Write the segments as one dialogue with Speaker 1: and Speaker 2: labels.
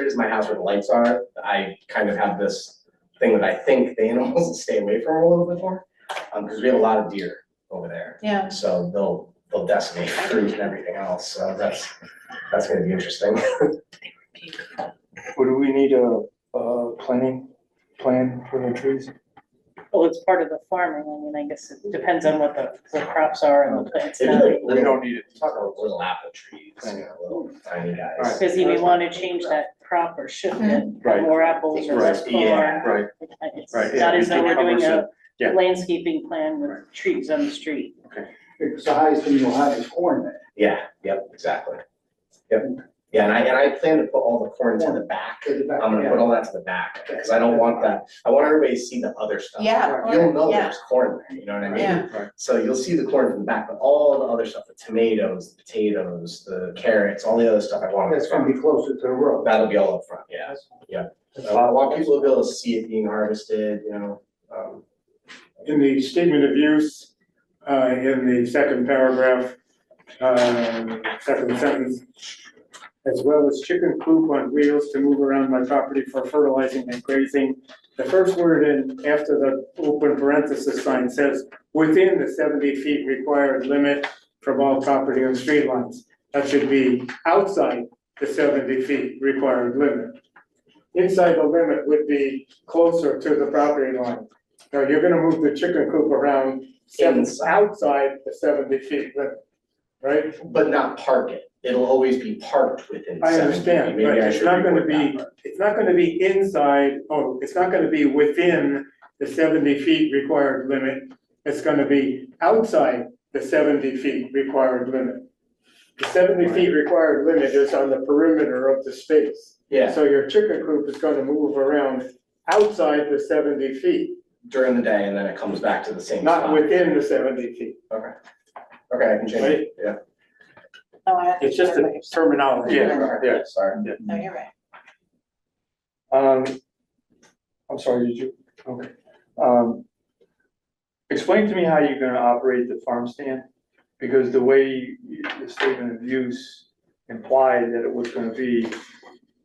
Speaker 1: it is my house where the lights are, I kind of have this thing that I think the animals stay away from a little bit more. Um, because we have a lot of deer over there,
Speaker 2: Yeah,
Speaker 1: so they'll, they'll decimate fruit and everything else, so that's, that's gonna be interesting.
Speaker 3: Would we need a, a planning, plan for the trees?
Speaker 2: well, it's part of the farming, I mean, I guess it depends on what the, the crops are and the plants
Speaker 1: It'd be
Speaker 2: now.
Speaker 1: like
Speaker 3: We
Speaker 1: little,
Speaker 3: don't need it.
Speaker 1: talk about little apple trees, you know, little tiny guys.
Speaker 2: Because you may want to change that crop or shift it,
Speaker 4: Mm-hmm.
Speaker 3: Right.
Speaker 2: have more apples or less
Speaker 1: Right,
Speaker 2: corn.
Speaker 1: yeah.
Speaker 3: Right,
Speaker 2: It's
Speaker 3: Right, yeah,
Speaker 2: not as
Speaker 3: it
Speaker 2: though we're doing a
Speaker 3: covers yeah.
Speaker 2: landscaping plan with trees on the street.
Speaker 5: Because the highest thing you'll have is corn there.
Speaker 1: Yeah, yep, exactly. Yep, yeah, and I, and I plan to put all the corn to the back.
Speaker 5: to the back.
Speaker 1: I'm gonna put all that to the back, because I don't want that, I want everybody to see the other stuff.
Speaker 4: Yeah,
Speaker 1: You'll
Speaker 4: corn,
Speaker 1: know
Speaker 4: yeah.
Speaker 1: there's corn there, you know what I mean?
Speaker 4: Yeah.
Speaker 3: Right.
Speaker 1: So you'll see the corn from the back, but all the other stuff, the tomatoes, the potatoes, the carrots, all the other stuff I want.
Speaker 5: That's gonna be closer to the road.
Speaker 1: That'll be all up front, yeah, yeah. So I want people to be able to see it being harvested, you know, um,
Speaker 6: in the statement of use, uh, in the second paragraph, um, second sentence, as well as chicken coop on wheels to move around my property for fertilizing and grazing. The first word in, after the open parenthesis sign says, within the seventy feet required limit from all property and street lines. That should be outside the seventy feet required limit. Inside the limit would be closer to the property line. No, you're gonna move the chicken coop around seven,
Speaker 1: Inside.
Speaker 6: outside the seventy feet limit, right?
Speaker 1: but not park it. It'll always be parked within
Speaker 6: I
Speaker 1: seven
Speaker 6: understand,
Speaker 1: maybe
Speaker 6: but
Speaker 1: I
Speaker 6: it's
Speaker 1: should
Speaker 6: not gonna
Speaker 1: reword
Speaker 6: be,
Speaker 1: that.
Speaker 6: it's not gonna be inside, oh, it's not gonna be within the seventy feet required limit. It's gonna be outside the seventy feet required limit. The seventy feet required limit is on the perimeter of the space.
Speaker 1: Yeah,
Speaker 6: So your chicken coop is gonna move around outside the seventy feet,
Speaker 1: during the day and then it comes back to the same spot.
Speaker 6: not within the seventy feet,
Speaker 1: Okay, I can change
Speaker 6: right?
Speaker 1: it, yeah.
Speaker 4: No, Oh, I-
Speaker 3: It's just a terminology.
Speaker 4: Yeah.
Speaker 1: Yeah, sorry.
Speaker 4: No, you're right.
Speaker 3: Um, I'm sorry, did you, okay. Um, explain to me how you're gonna operate the farm stand, because the way you- the statement of use implied that it was gonna be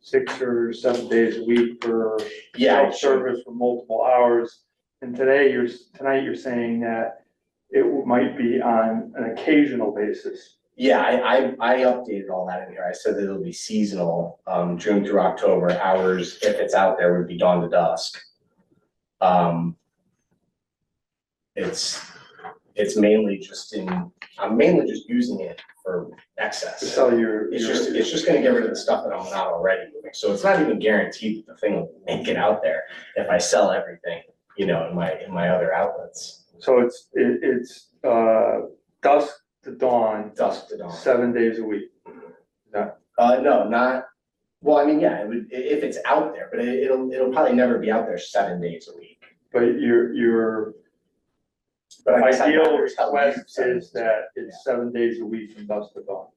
Speaker 3: six or seven days a week for
Speaker 1: Yeah, I should-
Speaker 3: self-service for multiple hours. And today, you're, tonight, you're saying that it might be on an occasional basis.
Speaker 1: Yeah, I, I, I updated all that in here. I said that it'll be seasonal, um, June through October, hours, if it's out there, would be dawn to dusk. Um. It's, it's mainly just in, I'm mainly just using it for
Speaker 3: To
Speaker 1: excess.
Speaker 3: sell your.
Speaker 1: It's
Speaker 3: your-
Speaker 1: just, it's just gonna get rid of the stuff that I'm not already doing, so it's not even guaranteed that the thing will make it out there if I sell everything, you know, in my, in my other outlets,
Speaker 3: So it's, it, it's, uh, dusk to dawn,
Speaker 1: dusk to dawn.
Speaker 3: seven days a week.
Speaker 1: Uh, no, not, well, I mean, yeah, it would, i- if it's out there, but it, it'll, it'll probably never be out there seven days a week.
Speaker 3: But your, your
Speaker 1: But I guess I'd
Speaker 3: ideal
Speaker 1: rather tell you
Speaker 3: request
Speaker 1: seven
Speaker 3: is
Speaker 1: days a
Speaker 3: that
Speaker 1: week.
Speaker 3: it's seven days a week from dusk to dawn.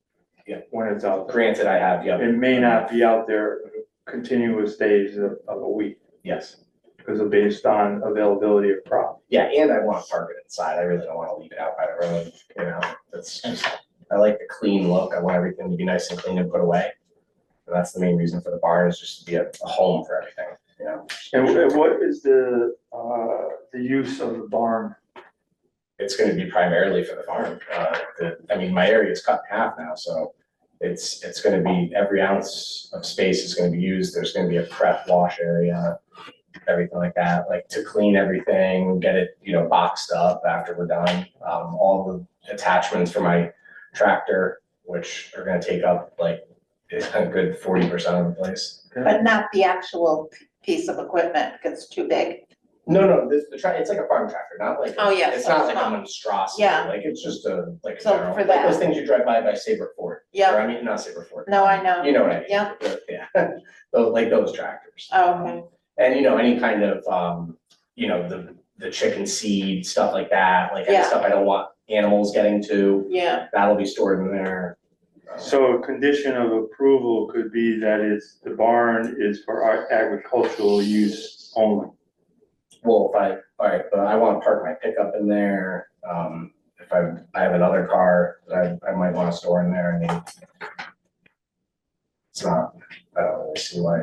Speaker 1: Yeah.
Speaker 3: When it's out there.
Speaker 1: Granted, I have, yeah,
Speaker 3: It may not be out there continuous days of, of a week,
Speaker 1: yes,
Speaker 3: because of based on availability of crop.
Speaker 1: yeah, and I wanna park it inside, I really don't wanna leave it out by the road, you know, that's just, I like the clean look, I want everything to be nice and clean and put away. And that's the main reason for the barn, is just to be a, a home for everything, you know,
Speaker 3: And wh- and what is the, uh, the use of the barn?
Speaker 1: it's gonna be primarily for the farm, uh, the, I mean, my area is cut in half now, so. It's, it's gonna be, every ounce of space is gonna be used, there's gonna be a prep wash area, everything like that, like to clean everything, get it, you know, boxed up after we're done. Um, all the attachments for my tractor, which are gonna take up like a good forty percent of the place.
Speaker 4: But not the actual p- piece of equipment, because it's too big.
Speaker 1: No, no, this, the tra- it's like a farm tractor, not like. a-
Speaker 4: Oh, yeah,
Speaker 1: It's
Speaker 4: so
Speaker 1: not
Speaker 4: it's
Speaker 1: like a
Speaker 4: not-
Speaker 1: monstrosity,
Speaker 4: Yeah.
Speaker 1: like it's just a, like a
Speaker 4: So
Speaker 1: general,
Speaker 4: for
Speaker 1: like
Speaker 4: that-
Speaker 1: those things you drive by by Saber Ford. Or
Speaker 4: Yeah,
Speaker 1: I mean, not Saber Ford.
Speaker 4: no, I know.
Speaker 1: You know what I mean?
Speaker 4: Yeah.
Speaker 1: Yeah, those, like those tractors.
Speaker 4: Oh, okay.
Speaker 1: And you know, any kind of, um, you know, the, the chicken seed, stuff like that, like any
Speaker 4: Yeah.
Speaker 1: stuff I don't want animals getting to,
Speaker 4: Yeah,
Speaker 1: that'll be stored in there.
Speaker 3: So a condition of approval could be that it's, the barn is for our agricultural use only.
Speaker 1: Well, if I, all right, but I wanna park my pickup in there, um, if I, I have another car that I, I might wanna store in there, I mean. It's not, I don't really see why